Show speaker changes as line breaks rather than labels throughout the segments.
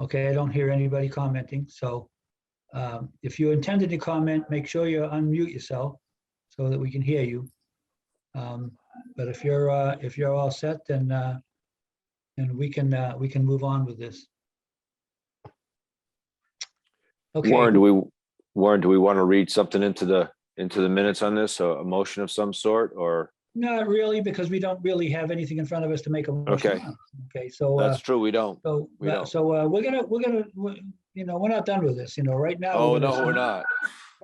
Okay, I don't hear anybody commenting, so um, if you intended to comment, make sure you unmute yourself so that we can hear you. Um, But if you're, uh, if you're all set, then, uh, then we can, uh, we can move on with this. Okay,
Warren, do we, Warren, do we want to read something into the, into the minutes on this, a, a motion of some sort, or?
not really, because we don't really have anything in front of us to make a. motion
Okay.
on. Okay, so. uh,
That's true, we don't.
So,
We
uh,
don't.
so uh, we're gonna, we're gonna, we- you know, we're not done with this, you know, right now.
Oh,
we're
no,
gonna-
we're not.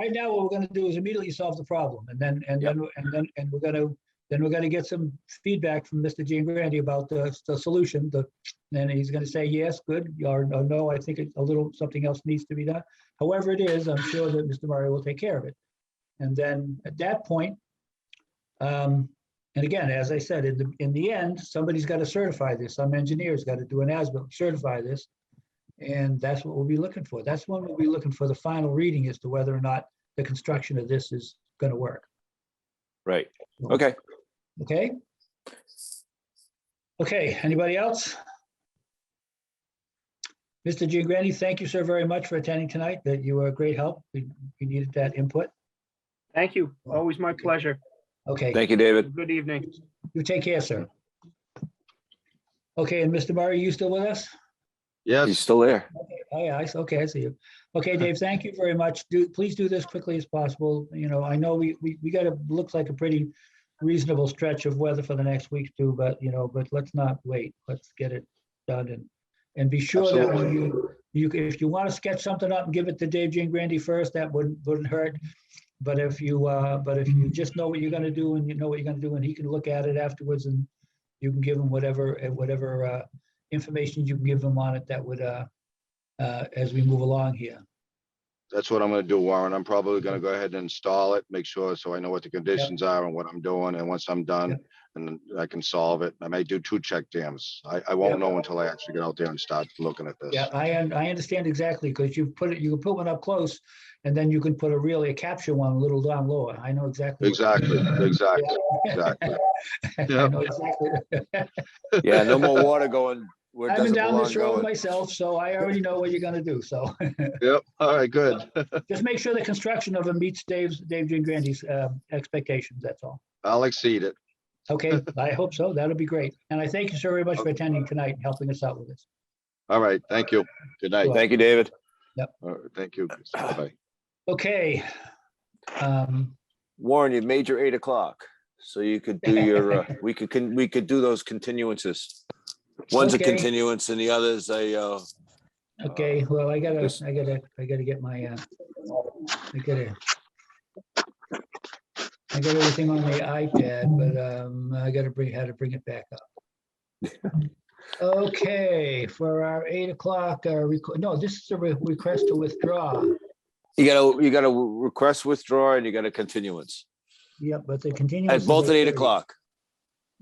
Right now, what we're gonna do is immediately solve the problem and then, and
Yep.
then, and then, and we're gonna, then we're gonna get some feedback from Mr. Jean Grandy about the, the solution, the, and he's gonna say, yes, good, or or no, I think it's a little, something else needs to be done. However it is, I'm sure that Mr. Murray will take care of it. And then at that point, um, and again, as I said, in the, in the end, somebody's got to certify this. Some engineer's got to do an ASBIL, certify this. And that's what we'll be looking for. That's when we'll be looking for the final reading as to whether or not the construction of this is going to work.
Right. Okay,
Okay? Okay, anybody else? Mr. Giovanni, thank you so very much for attending tonight. That you were a great help. We we needed that input.
Thank you. Always my pleasure.
Okay.
thank you, David.
Good evening.
You take care, sir. Okay, and Mr. Murray, you still with us?
He's
Yes,
still there.
Oh, yeah, I, s- okay, I see you. Okay, Dave, thank you very much. Do, please do this quickly as possible. You know, I know we, we, we got a, looks like a pretty reasonable stretch of weather for the next week too, but, you know, but let's not wait. Let's get it done and, and be sure that when you, you, c- if you want to sketch something up and give it to Dave Jean Grandy first, that wouldn't, wouldn't hurt. But if you, uh, but if you just know what you're gonna do and you know what you're gonna do and he can look at it afterwards and you can give him whatever, eh, whatever, uh, information you can give him on it that would, uh, uh, as we move along here.
that's what I'm gonna do, Warren. I'm probably gonna go ahead and install it, make sure, so I know what the conditions are and what I'm doing, and once I'm done, and then I can solve it. I may do two check dams. I, I
Yep.
won't know until I actually get out there and start looking at this.
Yeah, I, un- I understand exactly, because you've put it, you can put one up close, and then you can put a really, a capture one a little down lower. I know exactly. what-
Exactly, exactly, exactly.
I
Yep.
know exactly.
Yeah, no more water going where it
I've been
doesn't
down
belong
this road
going.
myself, so I already know what you're gonna do, so.
Yep, all right, good.
Just make sure the construction of it meets Dave's, Dave Gingrandy's, uh, expectations, that's all.
I'll exceed it.
Okay, I hope so. That'll be great. And I thank you so very much for attending tonight and helping us out with this.
All right, thank you. Good night.
Thank you, David.
All right, Thank you. Bye.
Okay. Um,
Warren, you've made your eight o'clock, so you could do your, uh, we could, con- we could do those continuances. One's a
Okay.
continuance and the other's a, uh, Um,
Okay, well, I gotta,
this-
I gotta, I gotta get my, uh, I gotta. I got everything on the iPad, but, um, I gotta bring, how to bring it back up. Okay, for our eight o'clock, uh, requ- no, this is a re- request to withdraw.
you gotta, you gotta request withdraw and you got a continuance
Yep, but the continuance.
at
is
both at eight
8:30.
o'clock.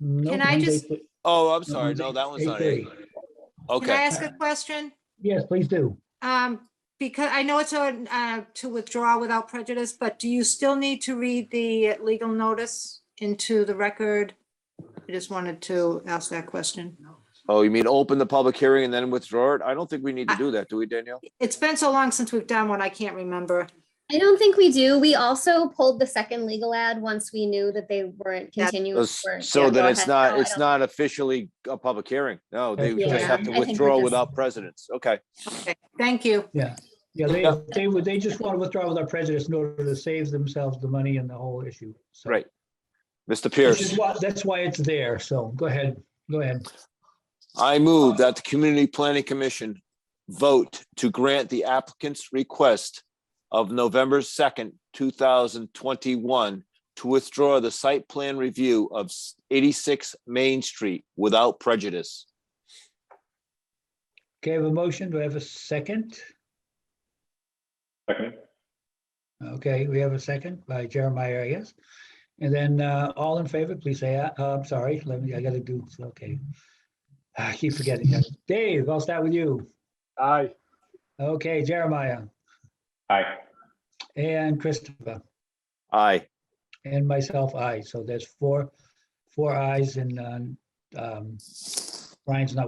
Nope,
Can I
one's
just-
8:30,
Oh, I'm sorry.
one's
No, that one's not eight.
8:30.
Can I
Okay,
ask a question?
Yes, please do.
Um, Because I know it's a, uh, to withdraw without prejudice, but do you still need to read the legal notice into the record? I just wanted to ask that question.
oh, you mean open the public hearing and then withdraw it? I don't think we need to do that, do we, Danielle?
It's been so long since we've done one, I can't remember.
I don't think we do. We also pulled the second legal ad once we knew that they weren't
Yeah.
continuing.
Those-
weren't-
So
yeah,
that
go
it's
ahead.
not,
No, I
it's
don't-
not officially a public hearing. No, they
Yeah,
just have
I
to
think we're
withdraw
just-
without precedence. Okay,
Okay, thank you.
Yeah,
Yeah.
they, they would, they just want to withdraw without prejudice in order to save themselves the money and the whole issue. so.
Right. Mr.
Which
Pierce,
is why, that's why it's there. So go ahead, go ahead.
I move that the Community Planning Commission vote to grant the applicant's request of November second, two thousand twenty-one to withdraw the site plan review of s- eighty-six Main Street without prejudice.
Okay, I have a motion. Do I have a second?
Second.
Okay, we have a second by Jeremiah, I guess. And then uh, all in favor, please say, aye. Uh, I'm sorry, let me, I gotta do, okay. Ah, I keep forgetting. that. Dave, I'll start with you.
Aye.
Okay, Jeremiah
Aye.
and Christopher
Aye.
and myself, I. So there's four, four ayes and um, um, Brian's uh, not